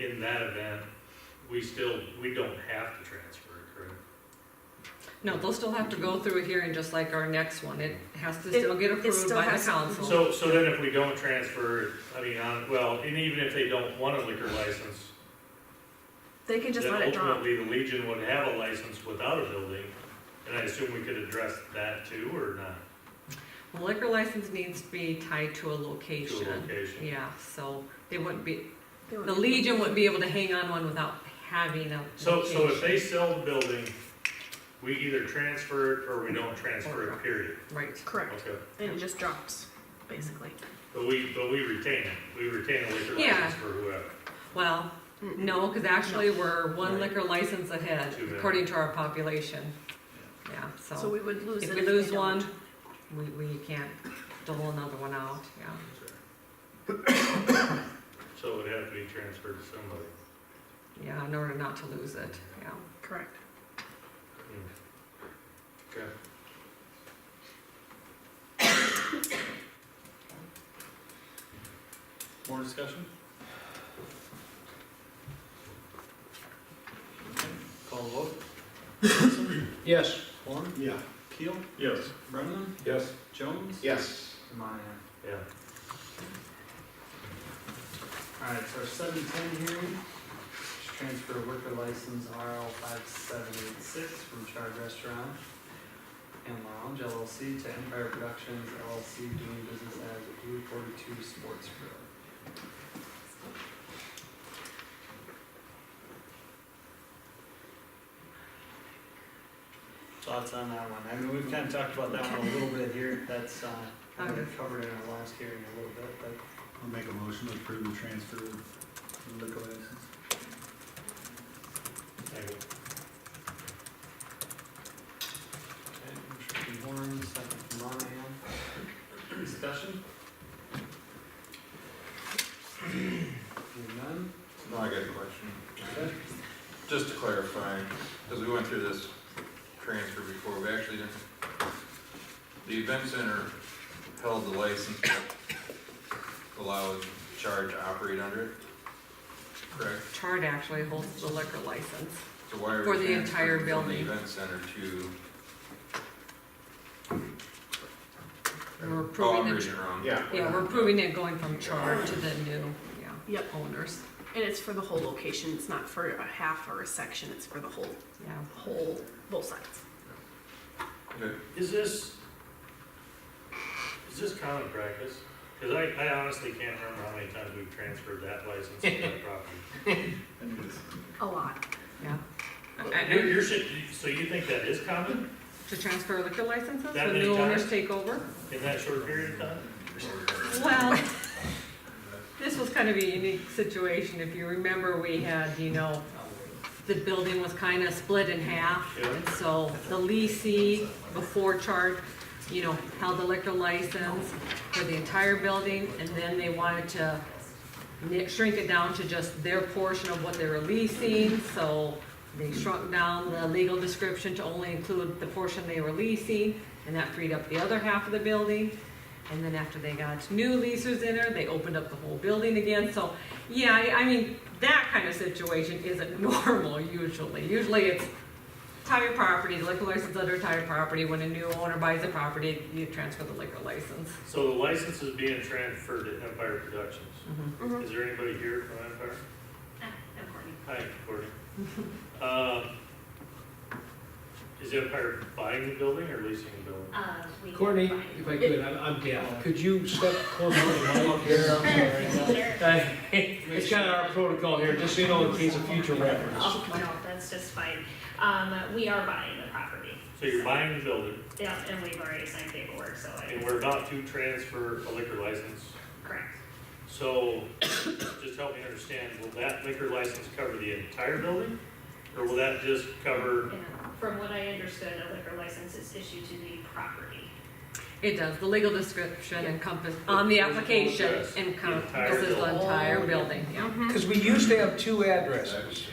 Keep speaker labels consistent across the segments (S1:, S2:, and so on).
S1: In that event, we still, we don't have to transfer it, correct?
S2: No, they'll still have to go through a hearing just like our next one. It has to still get
S3: it
S2: approved
S3: still
S2: by the
S3: has to-
S2: council.
S1: So, so then if we don't transfer, I mean, on, well, and even if they don't want a liquor license,
S3: They can just
S1: then
S3: let it drop.
S1: ultimately the Legion would have a license without a building. And I assume we could address that too, or not,
S2: The Liquor license needs to be tied to a
S1: to a
S2: location.
S1: location?
S2: Yeah, so they wouldn't be,
S3: They won't
S2: the
S3: be-
S2: Legion wouldn't be able to hang on one without having a
S1: So, so if
S2: location.
S1: they sell the building, we either transfer it or we don't transfer it, period.
S2: Right,
S3: Correct,
S1: Okay,
S3: and it just drops, basically.
S1: but we, but we retain it, we retain a liquor
S2: Yeah.
S1: license for whoever.
S2: well, no, because actually we're one
S1: Right.
S2: liquor license ahead
S1: Too bad.
S2: according to our population. Yeah,
S3: So
S2: so
S3: we would lose it.
S2: if we
S3: they
S2: lose
S3: don't.
S2: one, we, we can't dole another one out, yeah.
S1: So it would have to be transferred to somebody.
S2: Yeah, in order not to lose it, yeah.
S3: Correct.
S1: Okay.
S4: More discussion? Call the vote.
S5: Yes.
S4: Horn,
S5: Yeah.
S4: Keel,
S5: Yes.
S4: Brenneman,
S5: Yes.
S4: Jones.
S5: Yes.
S4: And Monahan.
S1: Yeah.
S4: All right, so our seven ten hearing, just transfer liquor license RL five seven eight six from Chard Restaurant and Lounge LLC to Empire Productions LLC doing business as Blue Forty Two Sports Grill. Thoughts on that one? I mean, we've kind of talked about that one a little bit here. That's, uh, I think we covered in our last hearing a little bit, but
S5: I'll make a motion to approve the transfer of liquor license.
S1: Second.
S4: Okay, motion from Warren, second from Monahan. Discussion? Hearing none,
S6: No, I got a question.
S4: okay,
S6: Just to clarify, because we went through this transfer before, we actually didn't, the event center held the license, but allowed Char to operate under it, correct?
S2: Chart actually holds the liquor license.
S6: So why are we
S2: For the
S6: transferring
S2: entire
S6: from
S2: building.
S6: the event center to?
S2: We're
S6: Oh,
S2: approving
S6: I'm
S2: the-
S6: reading it wrong.
S5: Yeah.
S2: Yeah, we're proving it going from char to the new, yeah,
S3: Yep,
S2: owners,
S3: and it's for the whole location, it's not for a half or a section, it's for the whole,
S2: yeah.
S3: whole, both sides.
S6: Okay.
S1: Is this, is this common practice? Because I, I honestly can't remember how many times we've transferred that license to that property.
S5: I knew this.
S3: A lot.
S2: Yeah.
S1: You're,
S2: And
S1: you're, should- so you think that is common
S2: to transfer liquor licenses,
S1: That
S2: when
S1: many
S2: new owners
S1: times?
S2: take over?
S1: in that short period of time?
S2: Well, this was kind of a unique situation. If you remember, we had, you know, the building was kind of split in half.
S1: Yeah.
S2: And so the leasing before chart, you know, held the liquor license for the entire building. And then they wanted to ni- shrink it down to just their portion of what they were leasing. So they shrunk down the legal description to only include the portion they were leasing. And that freed up the other half of the building. And then after they got new leases in there, they opened up the whole building again. So, yeah, I, I mean, that kind of situation isn't normal usually. Usually it's entire property, liquor license under entire property. When a new owner buys a property, you transfer the liquor license.
S1: So the license is being transferred to Empire Productions.
S2: Mhm.
S1: Is there anybody here from Empire? Hi, Courtney. Um, Is Empire buying the building or leasing the building?
S7: Courtney, if I could, I'm, I'm down. Could you step closer to the mic here? I'm sorry. Hey, Uh, It's kind of our protocol here, just so you know, in case of future reference.
S8: Oh, no, that's just fine. Um, we are buying the property.
S1: So you're buying the building,
S8: Yeah, and we've already signed paperwork, so
S1: and
S8: I,
S1: we're about to transfer a liquor license.
S8: correct.
S1: So, just help me understand, will that liquor license cover the entire building? Or will that just cover,
S8: Yeah. From what I understood, a liquor license is issued to the property.
S2: It does, the legal description encompass, on the application
S1: Yes, the entire
S2: encompasses the
S1: building. Oh,
S2: entire building, yeah.
S3: Mm-hmm.
S7: Because we used to have two
S6: That would
S7: addresses.
S6: change.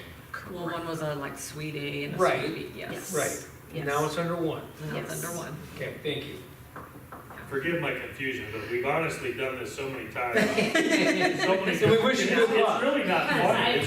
S2: Well, one was on like suite A and a
S7: Right.
S2: suite B, yes.
S7: Right,
S3: Yes.
S7: now it's under one.
S2: And that's
S3: Yes.
S2: under one.
S7: Okay, thank you.
S1: forgive my confusion, but we've honestly done this so many times. So many
S7: So we wish you
S1: times.
S7: good luck.
S1: It's really not
S8: Because I-
S1: funny.